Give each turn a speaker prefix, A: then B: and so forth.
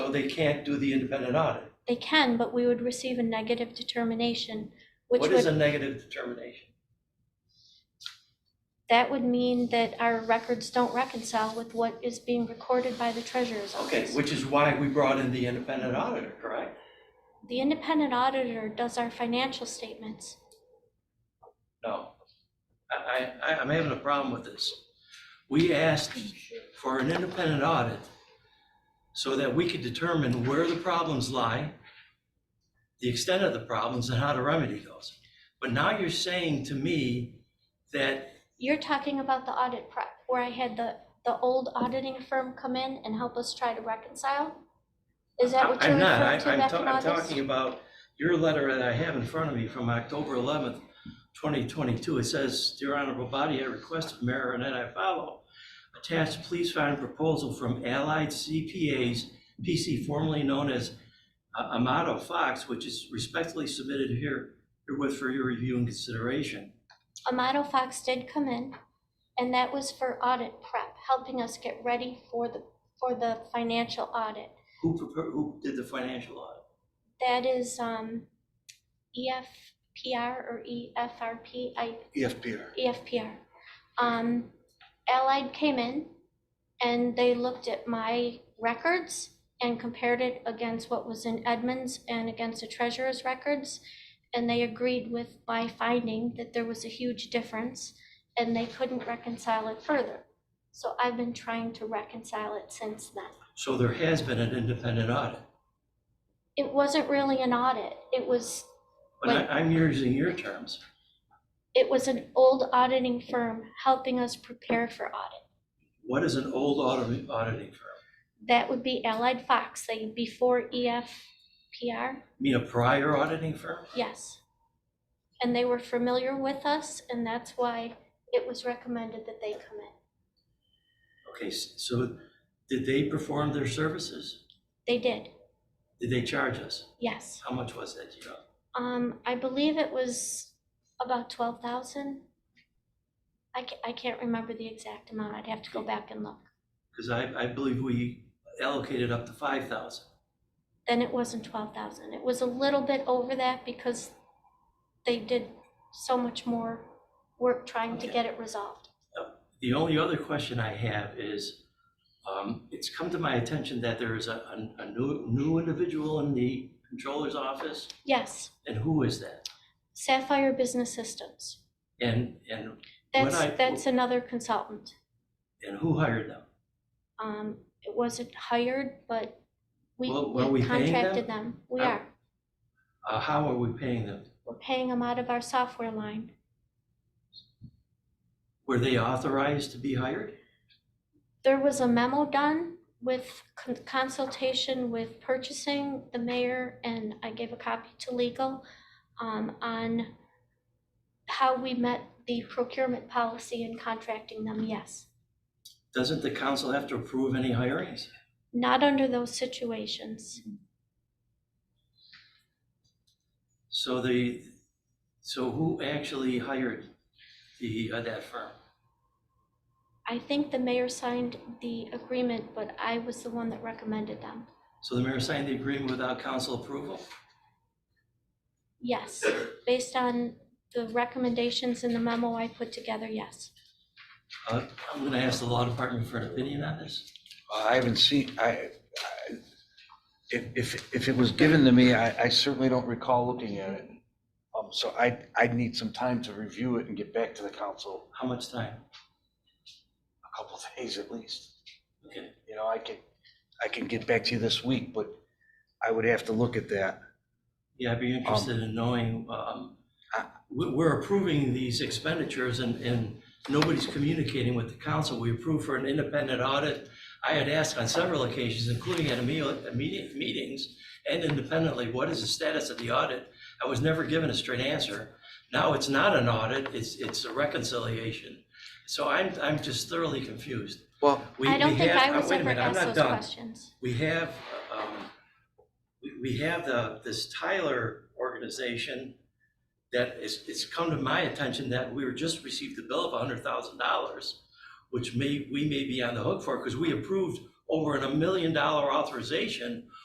A: they can't do the independent audit.
B: They can, but we would receive a negative determination, which
A: What is a
B: would,
A: negative determination?
B: that would mean that our records don't reconcile with what is being recorded by the treasurer's
A: Okay,
B: office.
A: which is why we brought in the independent auditor, correct?
B: The independent auditor does our financial statements.
A: No. I, I, I'm having a problem with this. We asked for an independent audit so that we could determine where the problems lie, the extent of the problems, and how to remedy those. But now you're saying to me that,
B: You're talking about the audit prep, where I had the, the old auditing firm come in and help us try to reconcile? Is that what you're
A: I'm not, I-
B: referring to
A: I'm,
B: back
A: ta-
B: in
A: I'm
B: August?
A: talking about your letter that I have in front of me from October eleventh, twenty twenty-two. It says, Dear Honorable Body, I request of Mayor Renee I follow. Attached, please find proposal from Allied CPAs, PC formerly known as uh, Amato Fox, which is respectfully submitted here herewith for your review and consideration.
B: Amato Fox did come in, and that was for audit prep, helping us get ready for the, for the financial audit.
A: Who prepared, who did the financial audit?
B: That is, um, EFPR or E EFRP, I, E
C: EFPR.
B: EFPR. Um, Allied came in and they looked at my records and compared it against what was in Edmonds and against the treasurer's records. And they agreed with my finding that there was a huge difference and they couldn't reconcile it further. So I've been trying to reconcile it since then.
A: So there has been an independent audit.
B: It wasn't really an audit. It was,
A: But I, I'm using your terms.
B: it was an old auditing firm helping us prepare for audit.
A: What is an old audit, auditing firm?
B: That would be Allied Fox, like before E EFPR,
A: You mean a prior auditing firm?
B: yes. And they were familiar with us, and that's why it was recommended that they come in.
A: Okay, s- so did they perform their services?
B: They did,
A: Did they charge us?
B: yes.
A: How much was that, do you know?
B: Um, I believe it was about twelve thousand. I ca- I can't remember the exact amount, I'd have to go back and look.
A: Because I, I believe we allocated up to five thousand.
B: Then it wasn't twelve thousand, it was a little bit over that because they did so much more work trying to
A: Okay.
B: get it resolved.
A: The only other question I have is, um, it's come to my attention that there is a, a- a new, new individual in the controller's office,
B: Yes,
A: and who is that?
B: Sapphire Business Systems.
A: And, and, When
B: That's,
A: I-
B: that's another consultant.
A: and who hired them?
B: Um, it wasn't hired, but we,
A: Well, are
B: we
A: we paying them?
B: contracted them. We
A: Are-
B: are.
A: Uh, how are we paying them?
B: We're paying them out of our software line.
A: Were they authorized to be hired?
B: There was a memo done with con- consultation with purchasing, the mayor, and I gave a copy to legal um, on how we met the procurement policy in contracting them, yes.
A: Doesn't the council have to approve any hirings?
B: Not under those situations.
A: So the, so who actually hired the, uh, that firm?
B: I think the mayor signed the agreement, but I was the one that recommended them.
A: So the mayor signed the agreement without council approval?
B: Yes, based on the recommendations in the memo I put together, yes.
A: Uh, I'm gonna ask the law department for an opinion on this.
C: I haven't seen, I, I- if, if, if it was given to me, I, I certainly don't recall looking at it. Um, so I, I'd need some time to review it and get back to the council,
A: How much time?
C: a couple of days at least.
A: Okay,
C: You know, I can, I can get back to you this week, but I would have to look at that.
A: yeah, I'd be interested in knowing, um,
C: I-
A: we- we're approving these expenditures and, and nobody's communicating with the council. We approved for an independent audit. I had asked on several occasions, including at immediate, immediate meetings and independently, what is the status of the audit? I was never given a straight answer. Now it's not an audit, it's, it's a reconciliation. So I'm, I'm just thoroughly confused.
C: Well,
A: We-
B: I don't
A: we
B: think
A: have-
B: I
A: uh,
B: was
A: wait a
B: ever
A: minute, I'm
B: asked
A: not
B: those
A: done.
B: questions.
A: We have, um, we, we have the, this Tyler organization that is, it's come to my attention that we were just received a bill of hundred thousand dollars, which may, we may be on the hook for, because we approved over a million dollar authorization